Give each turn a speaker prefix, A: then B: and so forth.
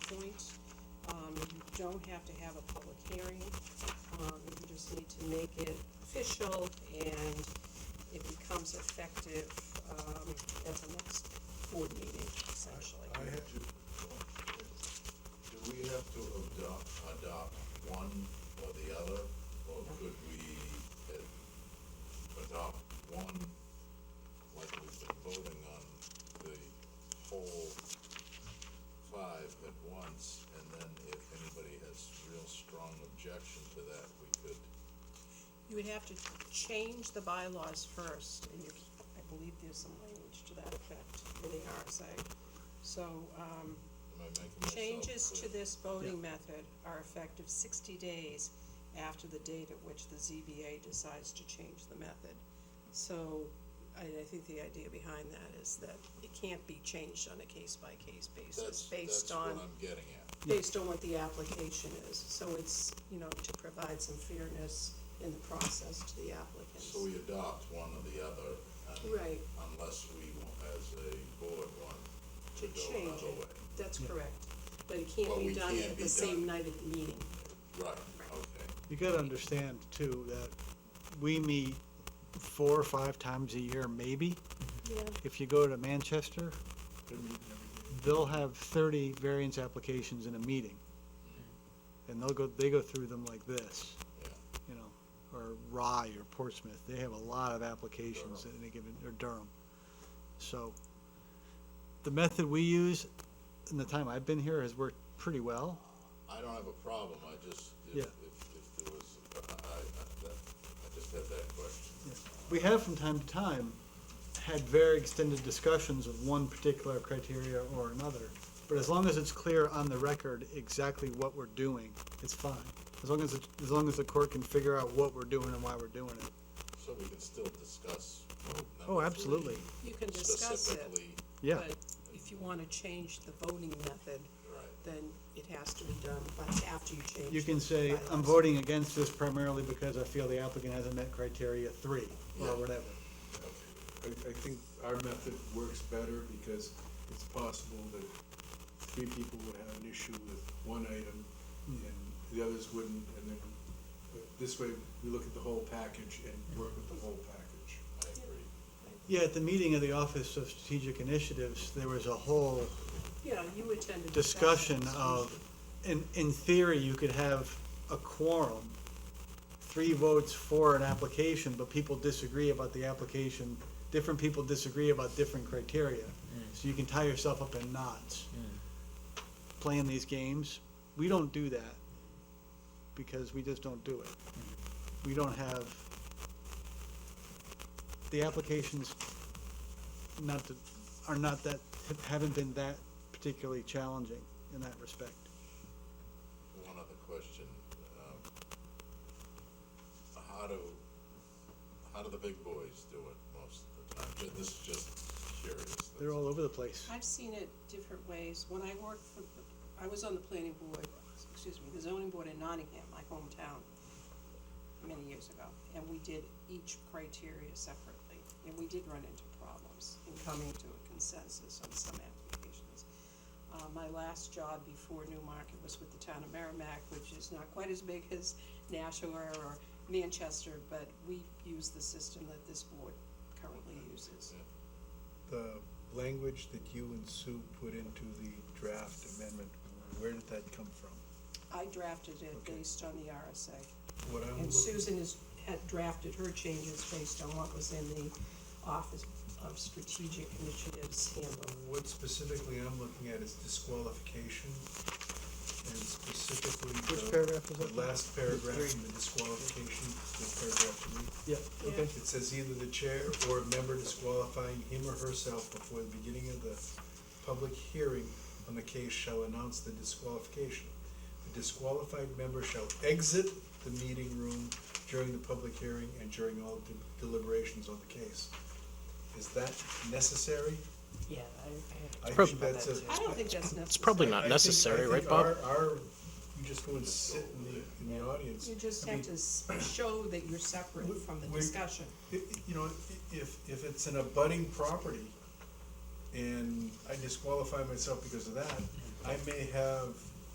A: Um, you don't have to have a public hearing, um, you just need to make it official and it becomes effective, um, at the next board meeting, essentially.
B: I had to, do we have to adopt, adopt one or the other, or could we uh, adopt one, like we've been voting on the whole five at once, and then if anybody has real strong objection to that, we could,
A: You would have to change the bylaws first, and you, I believe there's some language to that effect in the RSA. So, um,
B: am I making myself clear?
A: Changes to this voting method are effective sixty days after the date at which the ZBA decides to change the method. So, I, I think the idea behind that is that it can't be changed on a case-by-case basis,
B: That's, that's
A: based
B: what
A: on,
B: I'm getting at.
A: based on what the application is. So it's, you know, to provide some fairness in the process to the applicants.
B: So we adopt one or the other, and
A: Right.
B: unless we, want, as a board, want to
A: To
B: go
A: change it,
B: another way.
A: that's correct. But it can't
B: But
A: be
B: we
A: done
B: can't
A: at
B: be
A: the same
B: done.
A: night of the meeting.
B: Right,
A: Right.
B: okay,
C: You gotta understand too, that we meet four or five times a year, maybe.
A: Yeah.
C: If you go to Manchester, they'll have thirty variance applications in a meeting. And they'll go, they go through them like this,
B: yeah,
C: you know, or Rye or Portsmouth, they have a lot of applications in a given, or Durham. So, the method we use, in the time I've been here, has worked pretty well.
B: I don't have a problem, I just, if,
C: Yeah.
B: if, if there was, I, I, I- that, I just had that question.
C: We have from time to time had very extended discussions of one particular criteria or another, but as long as it's clear on the record exactly what we're doing, it's fine. As long as, it- as long as the court can figure out what we're doing and why we're doing it.
B: So we can still discuss vote number
C: Oh, absolutely,
B: three
A: You can discuss it.
B: Specifically,
C: yeah.
A: But if you wanna change the voting method,
B: right,
A: then it has to be done, but after you change.
C: You can
A: the
C: say, I'm
A: bylaws."
C: voting against this primarily because I feel the applicant hasn't met criteria three, or
B: Yeah.
C: whatever.
D: I, I think our method works better because it's possible that three people would have an issue with one item and the others wouldn't, and then, but this way, we look at the whole package and work with the whole package.
B: I agree.
C: Yeah, at the meeting of the Office of Strategic Initiatives, there was a whole
A: Yeah, you attended.
C: discussion of, in, in theory, you could have a quorum, three votes for an application, but people disagree about the application, different people disagree about different criteria. So you can tie yourself up in knots playing these games. We don't do that because we just don't do it. We don't have, the applications not to, are not that, haven't been that particularly challenging in that respect.
B: One other question, um, how do, how do the big boys do it most of the time? Ju- This is just curious.
C: They're
B: that's-
C: all over the place.
A: I've seen it different ways. When I worked for, I was on the planning board, excuse me, the zoning board in Nottingham, my hometown, many years ago, and we did each criteria separately. And we did run into problems in coming to a consensus on some applications. Uh, my last job before Newmarket was with the town of Merrimack, which is not quite as big as Nashua or Manchester, but we use the system that this board currently uses.
D: The language that you and Sue put into the draft amendment, where did that come from?
A: I drafted it
D: Okay.
A: based on the RSA.
D: What I'm
A: And
D: looking,
A: Susan has, had drafted her changes based on what was in the Office of Strategic Initiatives handbook.
D: what specifically I'm looking at is disqualification and specifically the.
C: Which paragraph is that?
D: The last paragraph in the disqualification, the paragraph three.
C: Yeah, okay.
D: It says either the chair or a member disqualifying him or herself before the beginning of the public hearing on the case shall announce the disqualification. The disqualified member shall exit the meeting room during the public hearing and during all de- deliberations on the case. Is that necessary?
A: Yeah, I,
D: I think that says.
A: I don't think that's necessary.
E: It's probably
D: I
E: not
D: think-
E: necessary,
D: I
E: right,
D: think
E: Bob?
D: Our, our, you just go and sit in the, in the audience.
A: You just
D: I
A: have
D: mean,
A: to s- show that you're separate
D: We-
A: from the
D: we-
A: discussion.
D: I- I- You know, i- if, if it's an abutting property and I disqualify myself because of that, I may have